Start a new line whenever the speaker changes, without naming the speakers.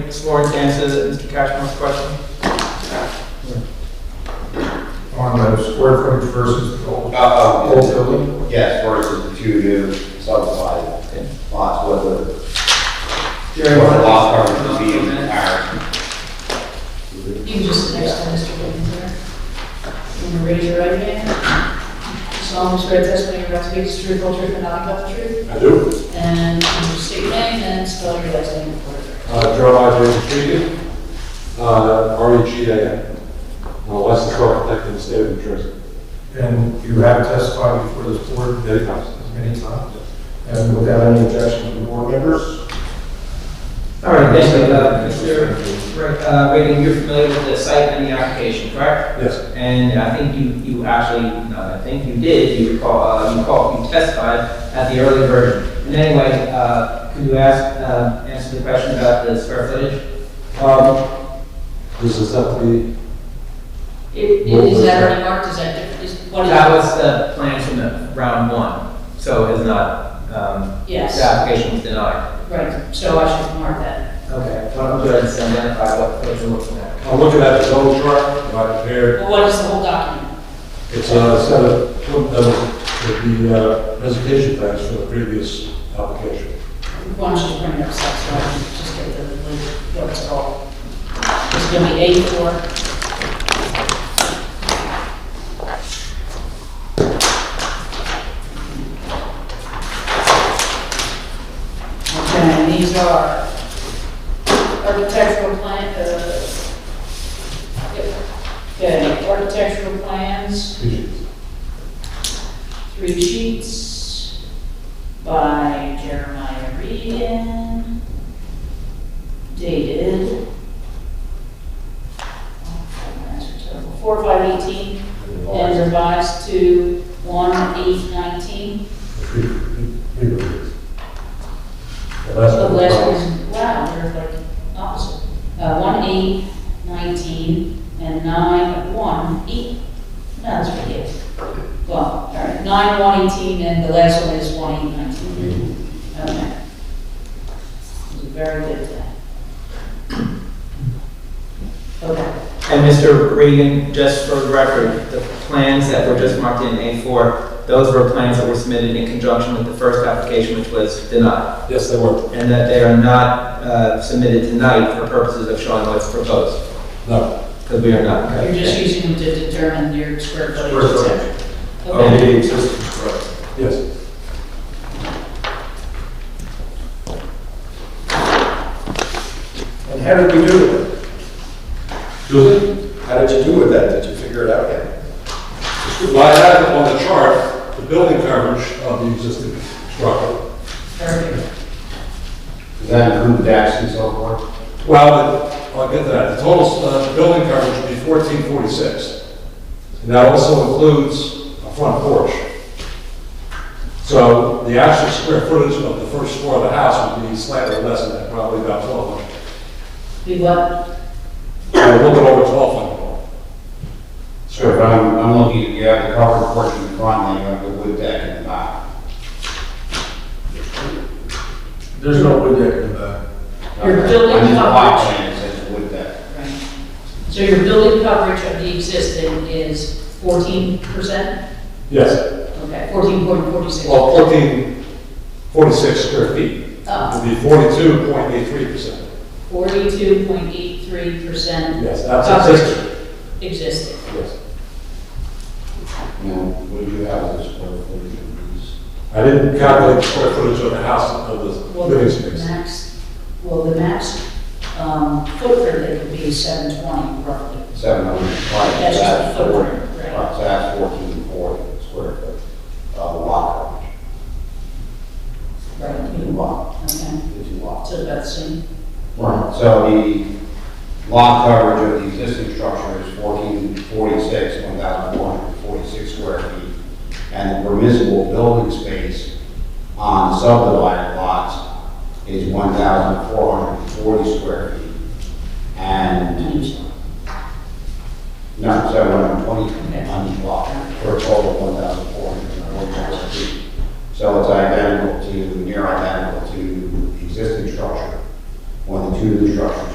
Ms. Lawrence answers it, Mr. Cashmore's question.
on the square footage versus the old,
Uh,
old building.
yes, versus the two new subdivided lots, what the,
Jerry,
what
why
the
don't-
lot coverage would be in comparison.
You can just sit next to Mr. Wiggins there. You want to raise your right hand? Solemnly swear testimony you're about to speak is the truth, whole truth, and nothing but the truth.
I do.
And you state your name and spell your last name for it.
Uh, Gerald J. Keegan, uh, R E G A N. I'm a licensed architect in the state of New Jersey.
And you have testified before this board
Many times.
as many times, and without any objection from board members.
All right, thank you. Uh, Mr. uh, Reagan, you're familiar with the site and the application, correct?
Yes,
And I think you, you actually, no, I think you did, you recall, uh, you called, you testified at the early version. And anyway, uh, could you ask, uh, answer the question about the square footage? Um,
this is at the,
It- it- Is that already marked, is that different, is, what is?
That was the plan from the round one, so it's not, um, the
Yes,
application was denied.
right, so I should mark that.
Okay, why don't you just identify what, what you're looking at?
I'm looking at the zone chart that I prepared.
But what is the whole document?
It's a set of, of the uh, presentation plans for the previous application.
Why don't you bring it up, so I can just get the, what it's called. It's going to be A four. Okay, and these are architectural plan, uh, okay, architectural plans, three sheets by Jeremiah Regan, dated four, five, eighteen, and revised to one, eight, nineteen.
The
The last one, wow, they're like opposite. Uh, one, eight, nineteen, and nine, one, eight, no, that's what it is. Well, all right, nine, one, eighteen, and the last one is one, eight, nineteen. Okay. You're Very good at that. Okay,
And Mr. Regan, just for the record, the plans that were just marked in A4, those were plans that were submitted in conjunction with the first application, which was denied,
Yes, they were.
and that they are not uh, submitted tonight for purposes of showing what's proposed,
No.
because we are not. okay?
you're just using them to determine your square footage, et
Square
cetera.
Of
Okay,
the existing structure.
Yes.
And how did we do with it?
Susan?
How did you do with that? Did you figure it out yet?
Well, I have on the chart, the building coverage of the existing structure.
perfect.
Does that include decks and so forth?
Well, the- I'll get to that. The total uh, building coverage would be 1446. And that also includes a front porch. So the actual square footage of the first floor of the house would be slightly less than that, probably about 1,200.
We what?
A little bit over 1,200.
So if I'm, I'm looking, at- you have the covered portion in front, then you have the wood deck in the back.
There's no wood deck in the back.
Your building
On this block
coverage.
plan, it says wood deck.
Right. So your building coverage of the existing is fourteen percent?
Yes,
Okay, fourteen point forty-six.
well, 1446 square feet
Uh,
would be 42.83%.
forty-two point eight-three percent
Yes, that's existing.
coverage existing.
Yes.
You know, what do you have as a square footage of these?
I didn't calculate the square footage of the house, of the
Well,
living
the
space.
max, well, the max, um, footprint that would be seven twenty roughly.
Seven hundred and twenty,
That's just
that's
the
forty,
footprint, right.
right, so that's fourteen forty square foot of lot coverage. Two
Right.
lot,
Okay,
the two lots.
so about the same.
Right, so the lot coverage of the existing structure is fourteen forty-six, one thousand four hundred forty-six square feet. And the permissible building space on subdivided lots is one thousand four hundred forty square feet. And,
Unusual.
no, so